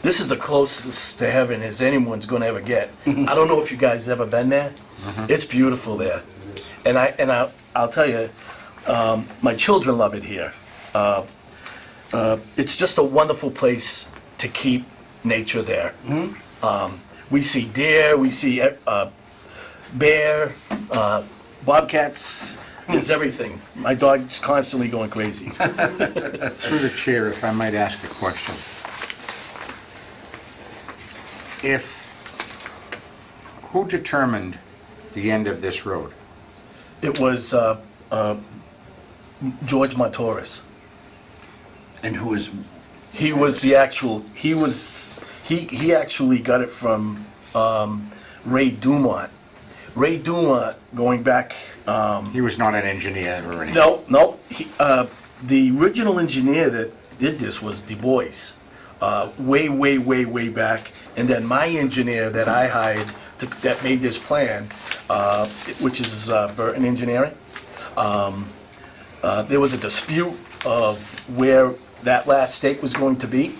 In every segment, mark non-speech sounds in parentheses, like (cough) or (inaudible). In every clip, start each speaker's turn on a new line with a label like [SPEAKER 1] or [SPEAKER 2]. [SPEAKER 1] This is the closest to heaven as anyone's going to ever get. I don't know if you guys ever been there. It's beautiful there, and I and I I'll tell you, um, my children love it here. Uh, uh, it's just a wonderful place to keep nature there. Um, we see deer, we see uh, bear, uh, bobcats. There's everything. My dog's constantly going crazy.
[SPEAKER 2] Through the chair, if I might ask a question. If, who determined the end of this road?
[SPEAKER 1] It was uh, uh, George Montoris.
[SPEAKER 3] And who is,
[SPEAKER 1] He was the actual. He was. He he actually got it from um, Ray Dumont. Ray Dumont, going back. Um,
[SPEAKER 2] He was not an engineer or anything.
[SPEAKER 1] no, no. He, uh, the original engineer that did this was Du Bois, uh, way, way, way, way back. And then my engineer that I hired to, that made this plan, uh, which is uh, Burton Engineering. um, Uh, There was a dispute of where that last stake was going to be,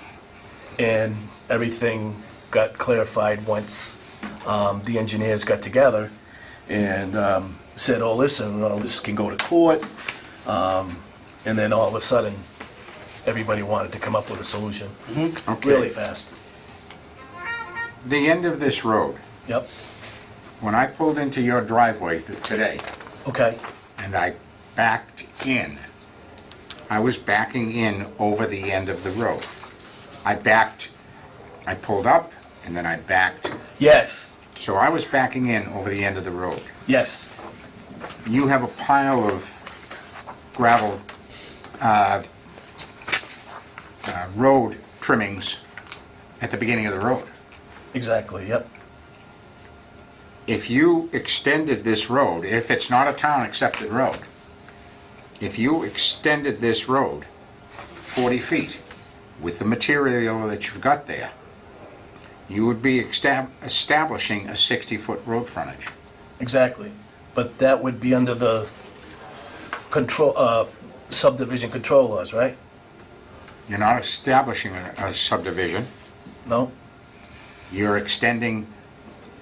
[SPEAKER 1] and everything got clarified once um, the engineers got together and um, said, oh, listen, all this can go to court. Um, And then all of a sudden, everybody wanted to come up with a solution
[SPEAKER 2] Okay.
[SPEAKER 1] really fast.
[SPEAKER 2] The end of this road,
[SPEAKER 1] Yep,
[SPEAKER 2] when I pulled into your driveway th- today
[SPEAKER 1] okay,
[SPEAKER 2] and I backed in, I was backing in over the end of the road. I backed, I pulled up and then I backed.
[SPEAKER 1] yes,
[SPEAKER 2] So I was backing in over the end of the road.
[SPEAKER 1] yes,
[SPEAKER 2] you have a pile of gravel, uh, uh, road trimmings at the beginning of the road.
[SPEAKER 1] exactly, yep.
[SPEAKER 2] If you extended this road, if it's not a town-accepted road, if you extended this road 40 feet with the material that you've got there, you would be extab- establishing a 60-foot road frontage.
[SPEAKER 1] Exactly. But that would be under the control, uh, subdivision control laws, right?
[SPEAKER 2] You're not establishing a a subdivision.
[SPEAKER 1] No?
[SPEAKER 2] you're extending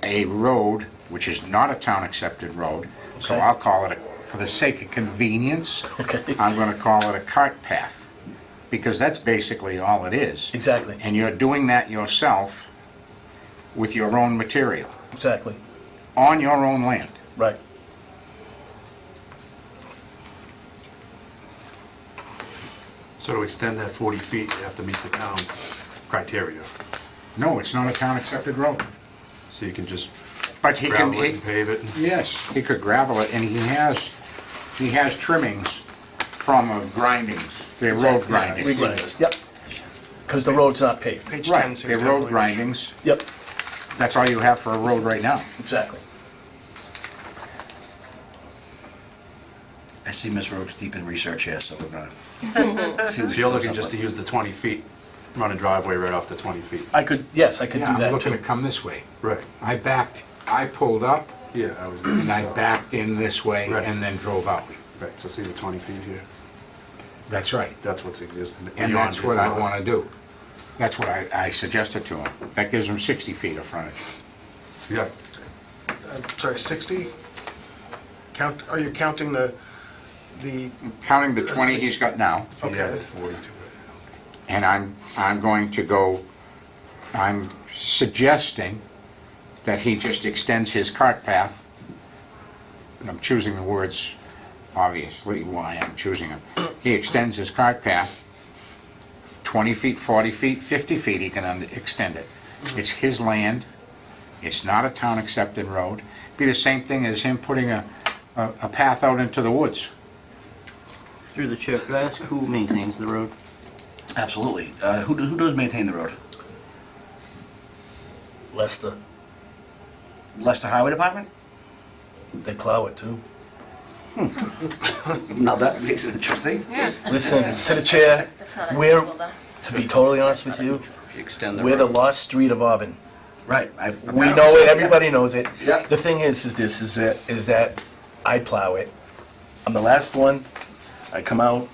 [SPEAKER 2] a road, which is not a town-accepted road, so
[SPEAKER 1] Okay.
[SPEAKER 2] I'll call it, a- for the sake of convenience,
[SPEAKER 1] Okay.
[SPEAKER 2] I'm gonna call it a cart path, because that's basically all it is.
[SPEAKER 1] Exactly,
[SPEAKER 2] And you're doing that yourself with your own material,
[SPEAKER 1] exactly,
[SPEAKER 2] on your own land.
[SPEAKER 1] right.
[SPEAKER 4] So to extend that 40 feet, you have to meet the town criteria.
[SPEAKER 2] No, it's not a town-accepted road,
[SPEAKER 4] So you can just
[SPEAKER 2] but he can,
[SPEAKER 4] gravel it
[SPEAKER 2] he-
[SPEAKER 4] and pave it.
[SPEAKER 2] yes, he could gravel it, and he has, he has trimmings from uh, grindings, they're road
[SPEAKER 1] We
[SPEAKER 2] grindings.
[SPEAKER 1] get it. Yep. Because the road's not paved.
[SPEAKER 5] Page 10,
[SPEAKER 2] Right,
[SPEAKER 5] so
[SPEAKER 2] they're
[SPEAKER 5] we
[SPEAKER 2] road
[SPEAKER 5] have-
[SPEAKER 2] grindings.
[SPEAKER 1] Yep,
[SPEAKER 2] That's all you have for a road right now.
[SPEAKER 1] exactly.
[SPEAKER 3] I see Ms. Rhodes deep in research here, so we're gonna. see
[SPEAKER 4] So
[SPEAKER 3] what
[SPEAKER 4] you're looking
[SPEAKER 3] comes
[SPEAKER 4] just
[SPEAKER 3] up
[SPEAKER 4] to
[SPEAKER 3] with.
[SPEAKER 4] use the 20 feet, run a driveway right off the 20 feet.
[SPEAKER 1] I could, yes, I could do
[SPEAKER 2] Yeah, I'm
[SPEAKER 1] that
[SPEAKER 2] looking to
[SPEAKER 1] too.
[SPEAKER 2] come this way.
[SPEAKER 4] Right.
[SPEAKER 2] I backed, I pulled up,
[SPEAKER 4] Yeah, I was
[SPEAKER 2] and I
[SPEAKER 4] there.
[SPEAKER 2] backed in this way,
[SPEAKER 4] Right.
[SPEAKER 2] and then drove out.
[SPEAKER 4] Right, so see the 20 feet here?
[SPEAKER 2] That's right.
[SPEAKER 4] That's what's existing.
[SPEAKER 2] And
[SPEAKER 4] Beyond
[SPEAKER 2] that's
[SPEAKER 4] is
[SPEAKER 2] what I
[SPEAKER 4] not.
[SPEAKER 2] want to do. That's what I, I suggested to him. That gives him 60 feet of frontage.
[SPEAKER 4] Yeah,
[SPEAKER 5] I'm Sorry, 60? Count, are you counting the, the,
[SPEAKER 2] Counting the 20 he's got now,
[SPEAKER 4] yeah,
[SPEAKER 5] okay.
[SPEAKER 4] 40 to it.
[SPEAKER 2] and I'm, I'm going to go, I'm suggesting that he just extends his cart path. And I'm choosing the words, obviously, why I'm choosing them. He extends his cart path 20 feet, 40 feet, 50 feet, he can un- extend it. It's his land, it's not a town-accepted road. Be the same thing as him putting a, a a path out into the woods.
[SPEAKER 6] Through the chair, could I ask who maintains the road?
[SPEAKER 3] Absolutely. Uh, who, do- who does maintain the road?
[SPEAKER 1] Lester,
[SPEAKER 3] Leicester Highway Department?
[SPEAKER 1] they plow it too.
[SPEAKER 3] Hmm. (laughs) Now that makes it interesting.
[SPEAKER 1] Listen, to the chair,
[SPEAKER 7] That's not
[SPEAKER 1] we're,
[SPEAKER 7] unusual, though.
[SPEAKER 1] to be totally honest with you,
[SPEAKER 3] If you extend the
[SPEAKER 1] we're the
[SPEAKER 3] road.
[SPEAKER 1] lost street of Auburn.
[SPEAKER 3] Right. I-
[SPEAKER 1] We know it, everybody knows it.
[SPEAKER 3] Yeah.
[SPEAKER 1] The thing is, is this, is that, is that I plow it. I'm the last one, I come out,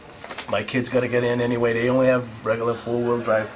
[SPEAKER 1] my kids gotta get in anyway, they only have regular four-wheel drive